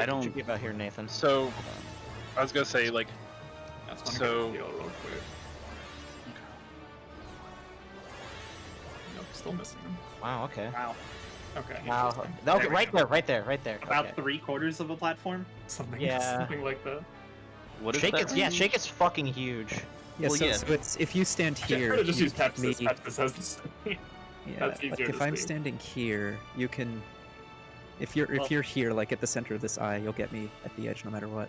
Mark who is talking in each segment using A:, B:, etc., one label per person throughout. A: I
B: What
A: don't.
B: you give out here, Nathan?
C: So, I was gonna say like
D: That's one
C: So-
D: so... heal real quick. Nope, still missing them.
B: Wow. Okay.
D: Wow. Okay.
B: Wow.
D: interesting.
B: Okay.
D: There we
B: right
D: go.
B: there. Right there. Right there.
D: About
B: okay.
D: three quarters of a platform, something,
B: Yeah.
D: something like that.
A: What is
B: Shake
A: that
B: is yeah.
A: range?
B: Shake is fucking huge.
E: Yeah,
A: Well,
E: so,
A: yeah.
E: so it's if you stand
D: Actually, I
E: here,
D: could've just
E: you
D: used
E: can
D: Pepsis.
E: me-
D: Pepsis has the same.
E: yeah,
D: That's
E: like
D: easier
E: if
D: to
E: I'm
D: see.
E: standing here, you can. If you're
D: Well-
E: if you're here, like at the center of this eye, you'll get me at the edge no matter what.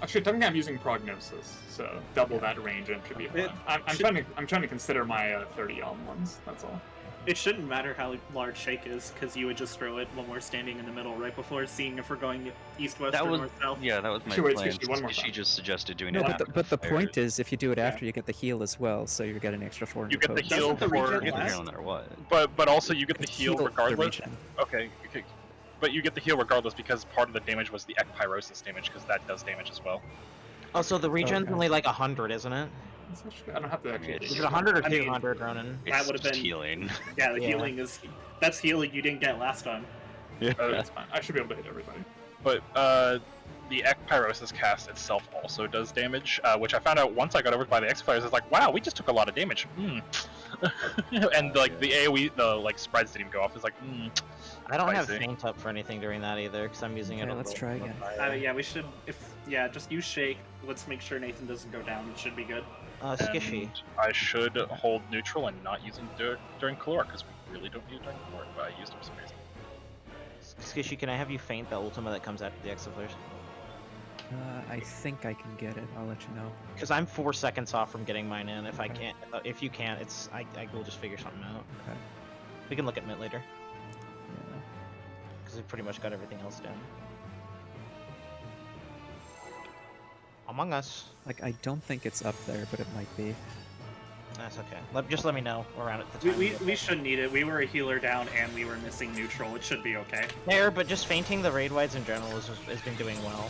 D: Actually, technically, I'm using prognosis, so double that range and it should be fine.
F: It
D: I'm, I'm
F: should-
D: trying to I'm trying to consider my uh, 30 elm ones. That's all.
F: It shouldn't matter how large shake is, because you would just throw it when we're standing in the middle, right before seeing if we're going east, west,
A: That
F: or
A: was-
F: north, south.
A: Yeah, that was my
D: She waited till
A: plan.
D: she did one more
A: she
D: time.
A: just suggested doing
E: No,
A: it.
E: but the,
A: after
E: but the
A: fire.
E: point is, if you do it
D: Yeah.
E: after, you get the heal as well, so you are getting an extra 400.
C: you get the
E: poke.
C: heal
F: Doesn't the
C: for,
A: You get the
F: Last-
A: heal no matter what.
C: but but also you get the heal
E: for
C: regardless.
E: regen.
C: Okay, okay, but you get the heal regardless because part of the damage was the ekpyrosis damage because that does damage as well.
B: Oh, so the regen's
E: Okay.
B: only like hundred, isn't it?
D: It's actually- I don't have to actually.
A: It's-
B: Is
D: do
B: it
D: it.
B: hundred or
F: I mean-
B: two hundred, Ronan?
A: It's
F: would've
A: just
F: been-
A: healing.
F: Yeah, the
B: Yeah.
F: healing is that's healing you didn't get last time.
D: Uh, it's fine. I should be able to hit everybody.
C: But uh, the ekpyrosis cast itself also does damage, uh, which I found out once I got over by the ekpyrosis. It's like, wow, we just took a lot of damage. Hmm. and
A: Oh,
C: like the AOE, the like spreads didn't even go off. It's like, hmm.
B: I don't have
C: Spicy.
B: faint up for anything during that either, because I'm using it.
E: Okay,
B: on
E: let's
B: the-
E: try again.
F: Uh, yeah, we should if yeah, just use shake. Let's make sure Nathan doesn't go down. It should be good.
B: Uh, Skishy.
C: And I should hold neutral and not using dur- during caloric because we really don't need it during caloric. But I used it for some reason.
B: Skishy, can I have you faint the ultima that comes after the Exiflers?
E: Uh, I think I can get it. I'll let you know.
B: Because I'm four seconds off from getting mine in. If I
E: Okay.
B: can't, uh, if you can't, it's I, I will just figure something out.
E: Okay.
B: We can look at Mint later,
E: Yeah.
B: because we pretty much got everything else down. Among Us.
E: Like I don't think it's up there, but it might be.
B: That's okay. Let, just let me know around at the
F: We,
B: time.
F: we, we should need it. We were a healer down and we were missing neutral. It should be okay.
B: there, but just fainting the raid wides in general has, has been doing well.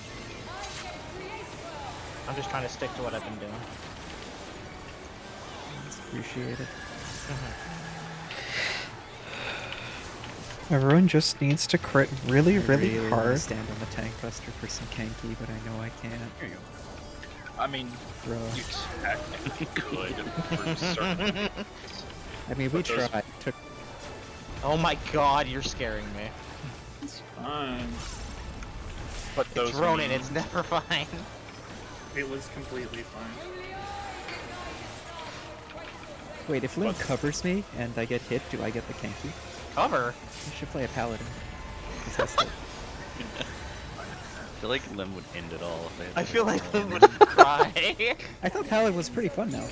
B: I'm just trying to stick to what I've been doing.
E: It's appreciated. Mm-hmm.
G: Everyone just needs to crit really,
E: I
G: really,
E: really wanna
G: hard.
E: stand on the tank buster for some kanky, but I know I can't.
C: I mean,
E: Bro,
C: you technically could for certain
E: I mean we
C: but those-
E: tried. Took
B: Oh my god, you're scaring me.
D: It's fine.
C: But those
B: it's Ronin,
C: mean-
B: it's never fine.
F: It was completely fine.
E: wait. If Lin
C: What?
E: covers me and I get hit, do I get the kanky?
B: Cover?
E: I should play a paladin. 'Cause that's the-
A: I feel like Lim would end it all. If they had
B: I
A: to
B: feel
A: do
B: like
A: it all.
B: Lim would cry.
E: I thought paladin was pretty fun now.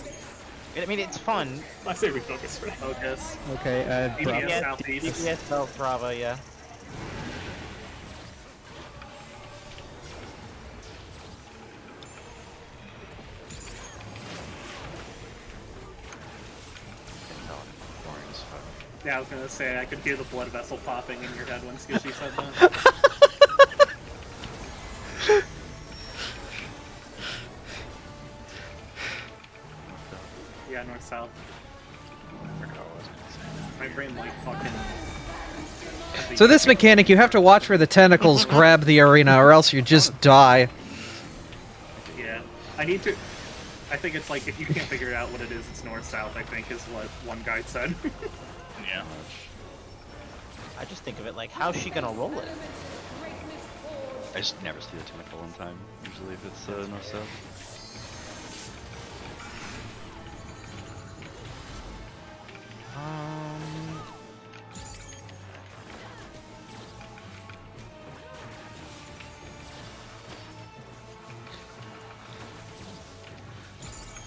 B: I mean, it's fun.
D: I say we focus for now.
F: Focus.
E: Okay, uh,
F: DPS
E: Bravo.
B: Yeah,
F: southeast.
B: DPS South Brava, yeah.
A: Boring as fuck.
F: Yeah, I was gonna say I could hear the blood vessel popping in your head when Skishy said that. yeah, north south. My brain like fucking.
G: So this mechanic, you have to watch where the tentacles grab the arena, or else you just die.
F: Yeah, I need to. I think it's like if you can't figure out what it is, it's north south. I think is what one guy said.
C: Yeah.
B: I just think of it like, how's she gonna roll it?
A: I just never see the tentacle in time. Usually, if it's uh, no stuff.
B: Um.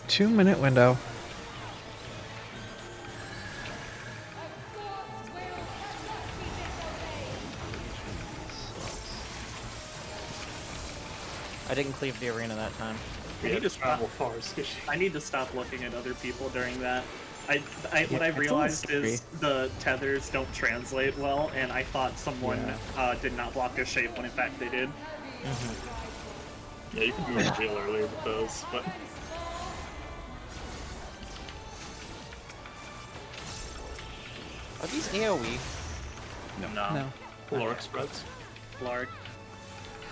G: Two minute window.
B: I didn't cleave the arena that time.
F: We
D: We
F: need
D: need
F: to
D: travel far, Skishy.
F: I need to stop looking at other people during that. I, I what
E: Yeah,
F: I
E: it's always
F: realized is the tethers don't translate well, and I thought someone uh, did not block their shape when in fact they did.
D: Yeah, you can move to jail earlier with those, but
B: Are these AoE?
C: No.
E: No.
B: E?
D: caloric spreads.
F: Lark,